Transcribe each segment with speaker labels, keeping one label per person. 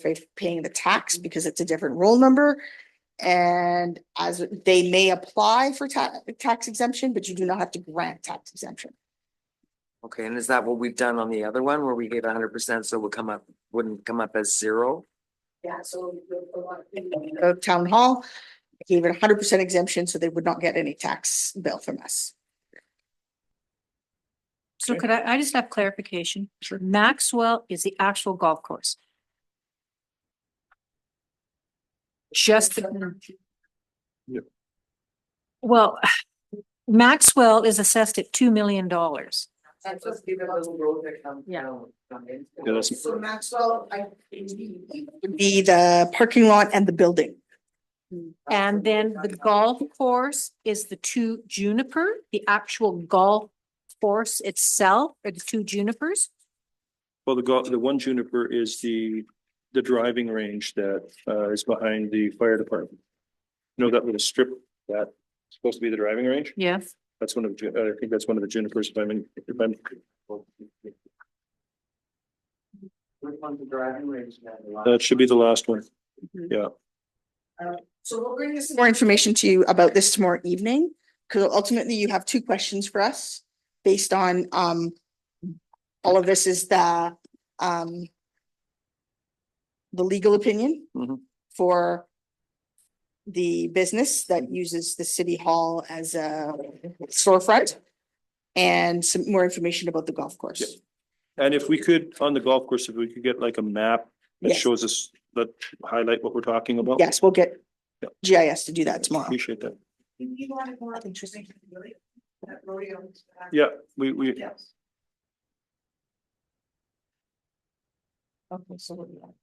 Speaker 1: for paying the tax because it's a different roll number. And as they may apply for ta- tax exemption, but you do not have to grant tax exemption.
Speaker 2: Okay, and is that what we've done on the other one where we gave hundred percent, so it would come up, wouldn't come up as zero?
Speaker 1: Yeah, so. The town hall gave it hundred percent exemption, so they would not get any tax bill from us.
Speaker 3: So
Speaker 2: Okay.
Speaker 3: could I, I just have clarification. Maxwell is the actual golf course. Just, the- well, Maxwell is assessed at two million dollars.
Speaker 2: That's just give it a little road that comes.
Speaker 3: Yeah.
Speaker 4: Yeah, that's-
Speaker 1: Maxwell, I. Would be the parking lot and the building.
Speaker 3: And then the golf course is the two juniper, the actual golf course itself, or the two junipers.
Speaker 4: Well, the go, the one juniper is the, the driving range that uh is behind the fire department. You know, that little strip that's supposed to be the driving range?
Speaker 3: Yes.
Speaker 4: That's one of, the ju- uh, I think that's one of the junipers, if I'm, in- if I'm.
Speaker 2: Which one's the driving range?
Speaker 4: That should be the last one.
Speaker 1: So we'll bring this. More information to you about this tomorrow evening, because ultimately you have two questions for us based on, um. All of this is the, um. The legal opinion.
Speaker 2: Mhm.
Speaker 1: For. The business that uses the city hall as a storefront. And some more information about the golf course.
Speaker 4: And if we could, on the golf course, if we could get like a map that
Speaker 1: Yes.
Speaker 4: shows us, that highlight what we're talking about.
Speaker 1: Yes, we'll get
Speaker 4: Yeah.
Speaker 1: GIS to do that tomorrow.
Speaker 4: Appreciate that.
Speaker 1: You wanted more interesting, really? That rodeo.
Speaker 4: Yeah, we, we,
Speaker 1: Yes. Okay, so what do you want?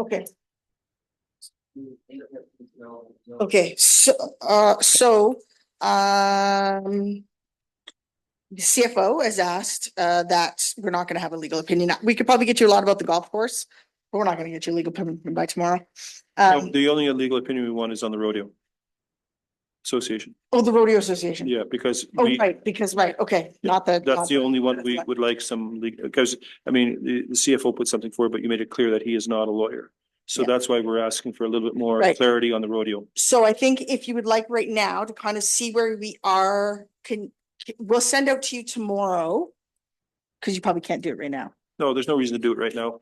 Speaker 1: Okay, okay, so, uh, so, um. The CFO has asked, uh, that we're not gonna have a legal opinion. We could probably get you a lot about the golf course, but we're not gonna get you a legal opinion by tomorrow.
Speaker 4: no,
Speaker 1: Um,
Speaker 4: the only illegal opinion we want is on the rodeo. Association,
Speaker 1: oh, the rodeo association.
Speaker 4: yeah, because.
Speaker 1: Oh,
Speaker 4: we-
Speaker 1: right, because, right, okay, not the.
Speaker 4: That's the only one we
Speaker 1: That's
Speaker 4: would like some, leg- because, I mean, the, the CFO put something forward, but you made it clear that he is not a lawyer. So
Speaker 1: Yeah.
Speaker 4: that's why we're asking for a little bit more
Speaker 1: Right.
Speaker 4: clarity on the rodeo.
Speaker 1: So I think if you would like right now to kind of see where we are, can, we'll send out to you tomorrow. Cause you probably can't do it right now.
Speaker 4: No, there's no reason to do it right now.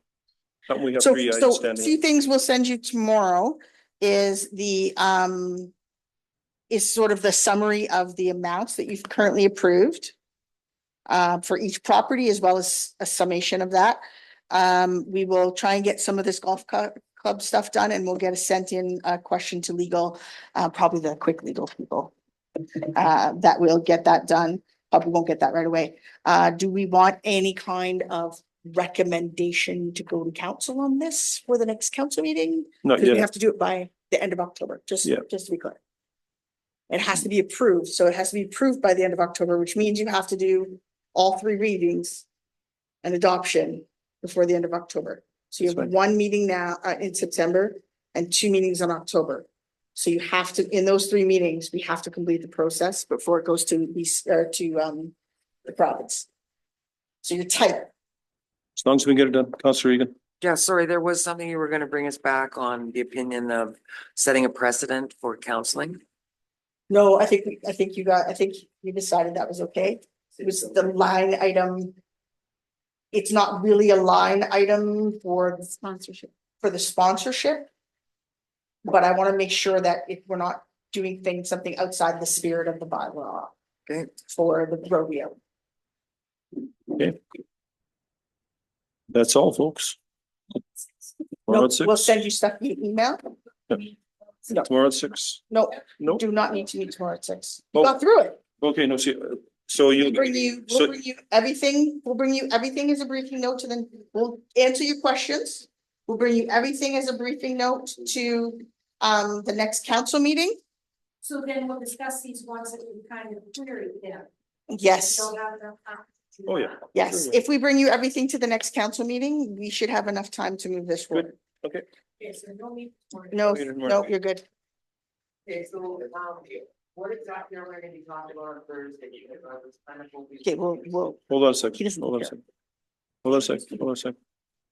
Speaker 4: Not when we have
Speaker 1: So,
Speaker 4: three
Speaker 1: so
Speaker 4: eyes
Speaker 1: a
Speaker 4: standing.
Speaker 1: few things we'll send you tomorrow is the, um, is sort of the summary of the amounts that you've currently approved uh, for each property as well as a summation of that. Um, we will try and get some of this golf cu- club stuff done and we'll get a sent in, uh, question to legal, uh, probably the quick legal people. Uh, that will get that done. Probably won't get that right away. Uh, do we want any kind of recommendation to go to council on this for the next council meeting?
Speaker 4: Not
Speaker 1: Because we
Speaker 4: yet.
Speaker 1: have to do it by the end of October, just,
Speaker 4: Uh, Yeah.
Speaker 1: just to be clear. It has to be approved, so it has to be approved by the end of October, which means you have to do all three readings and adoption before the end of October. So you
Speaker 4: That's
Speaker 1: have
Speaker 4: right.
Speaker 1: one meeting now, uh, in September and two meetings in October. So you have to, in those three meetings, we have to complete the process before it goes to these, or to, um, the province. So you're tight.
Speaker 4: As long as we can get it done, Counselor Egan.
Speaker 2: Yeah, sorry, there was something you were gonna bring us back on the opinion of setting a precedent for counseling.
Speaker 1: No, I think, we- I think you got, I think you decided that was okay. It was the line item. It's not really a line item for,
Speaker 3: Sponsorship.
Speaker 1: for the sponsorship. But I want to make sure that if we're not doing things, something outside the spirit of the bylaw
Speaker 2: Okay,
Speaker 1: for the rodeo.
Speaker 4: That's all, folks.
Speaker 1: No,
Speaker 4: Tomorrow at
Speaker 1: we'll
Speaker 4: oh six?
Speaker 1: send you stuff via email. no.
Speaker 4: Tomorrow at six?
Speaker 1: No,
Speaker 4: No?
Speaker 1: do not need to meet tomorrow at six. You
Speaker 4: Oh.
Speaker 1: got through it.
Speaker 4: Okay, no, see, uh, so
Speaker 1: We'll
Speaker 4: you,
Speaker 1: bring you,
Speaker 4: so-
Speaker 1: we'll bring you everything, we'll bring you everything as a briefing note to then, we'll answer your questions. We'll bring you everything as a briefing note to um the next council meeting.
Speaker 5: So then we'll discuss these ones that we kind of queried them.
Speaker 1: Yes,
Speaker 5: We'll have uh, enough time to do
Speaker 4: Oh, yeah.
Speaker 5: that.
Speaker 1: yes. If we bring you everything to the next council meeting, we should have enough time to move this forward.
Speaker 5: Okay, so no need for it.
Speaker 1: No,
Speaker 4: We didn't work.
Speaker 1: no, you're good.
Speaker 6: Okay, so, um, what exactly are we gonna be talking about on Thursday? Because I was kind of hoping-
Speaker 1: Okay, we'll, we'll,
Speaker 4: hold on a
Speaker 1: he
Speaker 4: second,
Speaker 1: doesn't
Speaker 4: hold on a
Speaker 1: care.
Speaker 4: second. Hold on a second, hold on a second.